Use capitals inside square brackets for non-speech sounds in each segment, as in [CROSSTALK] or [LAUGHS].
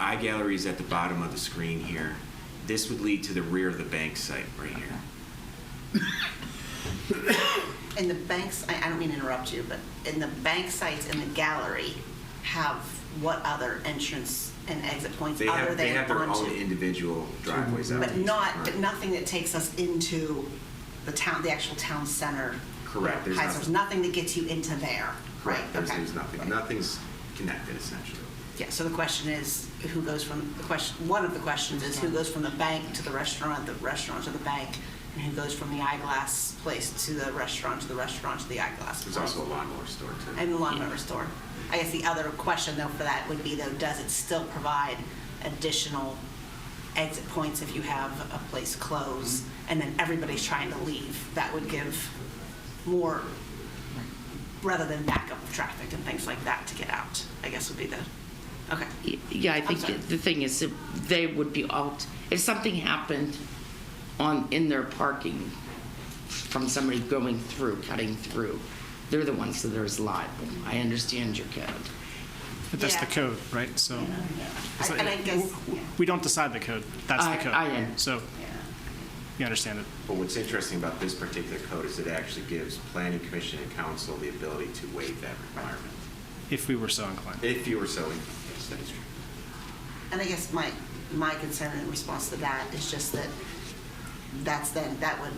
Eye gallery is at the bottom of the screen here. This would lead to the rear of the bank site right here. And the banks, I, I don't mean to interrupt you, but in the bank sites in the gallery have what other entrance and exit points They other have, they than have their own onto? individual driveways. out But to each not, front. but nothing that takes us into the town, the actual town center. Correct, there's Heights. There's nothing that gets you into there, right? Correct, there's, Okay. there's nothing, nothing's connected essentially. Yeah, so the question is, who goes from, the question, one of the questions is who goes from the bank to the restaurant, the restaurant to the bank, and who goes from the eyeglass place to the restaurant, to the restaurant, to the eyeglass There's place? also a lawnmower store too. and the lawnmower store. I guess the other question though for that would be though, does it still provide additional exit points if you have a place close and then everybody's trying to leave? That would give more, rather than backup of traffic and things like that to get out, I guess would be the, okay. Yeah, I think sorry. the thing is, that they would be out, if something happened on, in their parking from somebody going through, cutting through, they're the ones that are liable. I understand your code. But that's the Yeah. code, right? So it's And like- I guess, yeah. we don't decide the code. That's I- the code. I am. So you understand it. But what's interesting about this particular code is it actually gives planning commission and council the ability to waive that requirement. If we were so inclined. If you were so, inclined. yes, that is true. And I guess my, my concern in response to that is just that that's then, that would,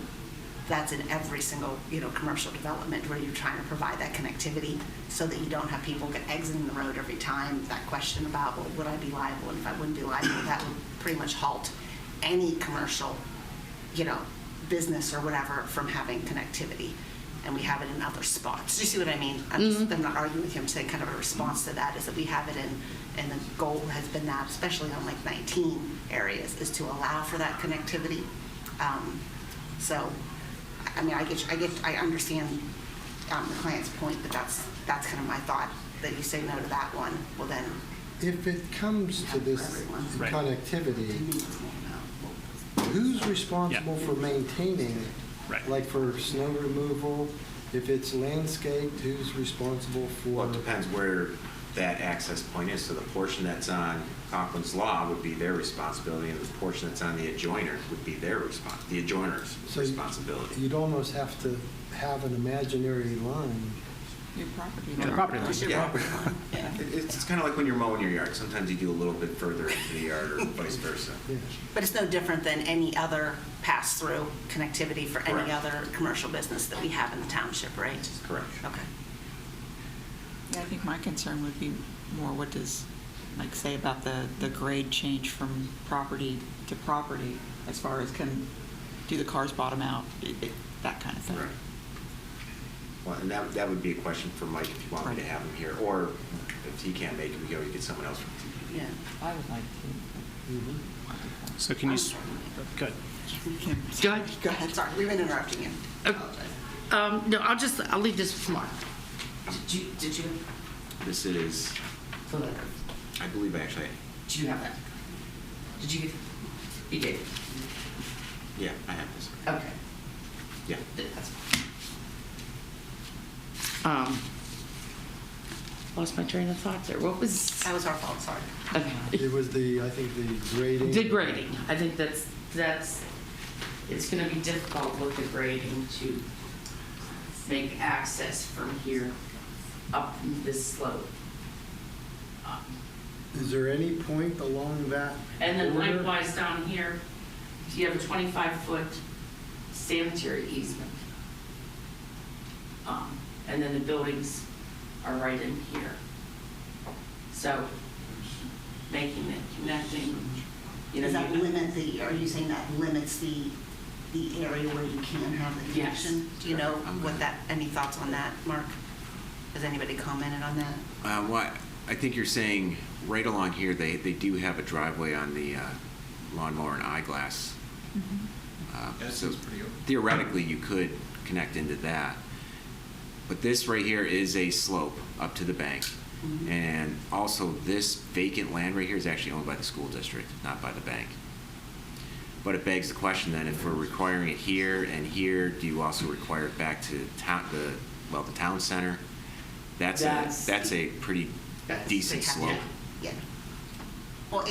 that's in every single, you know, commercial development where you're trying to provide that connectivity so that you don't have people get exiting the road every time. That question about, well, would I be liable? And if I wouldn't be liable, that would pretty much halt any commercial, you know, business or whatever from having connectivity. And we have it in other spots. Do you see what I mean? I'm, just, I'm not arguing with you. I'm saying kind of a response to that is that we have it in, and the goal has been that, especially on like 19 areas, is to allow for that connectivity. Um, so, I- I mean, I get, you- I get, I understand um, the client's point, but that's, that's kind of my thought, that you say no to that one, well then, If it comes to this Right. to me, connectivity, it's more about- who's responsible for maintaining? it? Right. Like for snow removal, if it's landscaped, who's responsible Well, for? it depends where that access point is. So the portion that's on Conklin's Law would be their responsibility, and the portion that's on the adjoiner would be their response, the adjoiner's So you- responsibility. You'd almost have to have an imaginary line. Your property. The property line. Yeah. It- [LAUGHS] It's, it's kind of like when you're mowing your yard. Sometimes you do a little bit further into the yard or vice versa. Yeah. But it's no different than any other pass-through connectivity for any Correct. other commercial business that we have in the township, right? Correct. Okay. Yeah, I think my concern would be more what does, like, say about the, the grade change from property to property as far as can, do the cars bottom out, i- i- that kind of thing. Right. Well, and that, that would be a question for Mike if you want me to Right. have him here, or if he can't make it, we go get someone else from TV. Yeah. I would like Mhm. to. So can you, s- good. Kim, Go ahead. Go ahead, sorry, we've been interrupting you. Uh, Um, no, I'll just, I'll leave this for Mark. Did you, did you, This is, I believe actually, do you have that? Did you, get- you did? yeah, I have this. Okay. Yeah. That's- Um, Lost my train of thought there. What was? That was our fault, sorry. Okay. It was the, I think, the grading. Degrading. I think that's, that's, it's gonna be difficult with the grading to make access from here up this slope. Um, Is there any point along that? And then border? likewise down here, you have a twenty-five foot sanitary easement. Um, and then the buildings are right in here. So making it connecting, you know. Does that you- limit the, are you saying that limits the, the area where you can have the Yes. connection? Do you know I'm what gonna- that, any thoughts on that, Mark? Has anybody commented on that? Uh, well, I think you're saying right along here, they, they do have a driveway on the uh, lawnmower and eyeglass. Uh, so Theoretically, you could connect into that. But this right here is a slope up to the bank. Mhm. And also, this vacant land right here is actually owned by the school district, not by the bank. But it begs the question then, if we're requiring it here and here, do you also require it back to town, the, well, the town center? That's a, That's- that's a pretty That's- decent they have- slope. yeah. Yeah,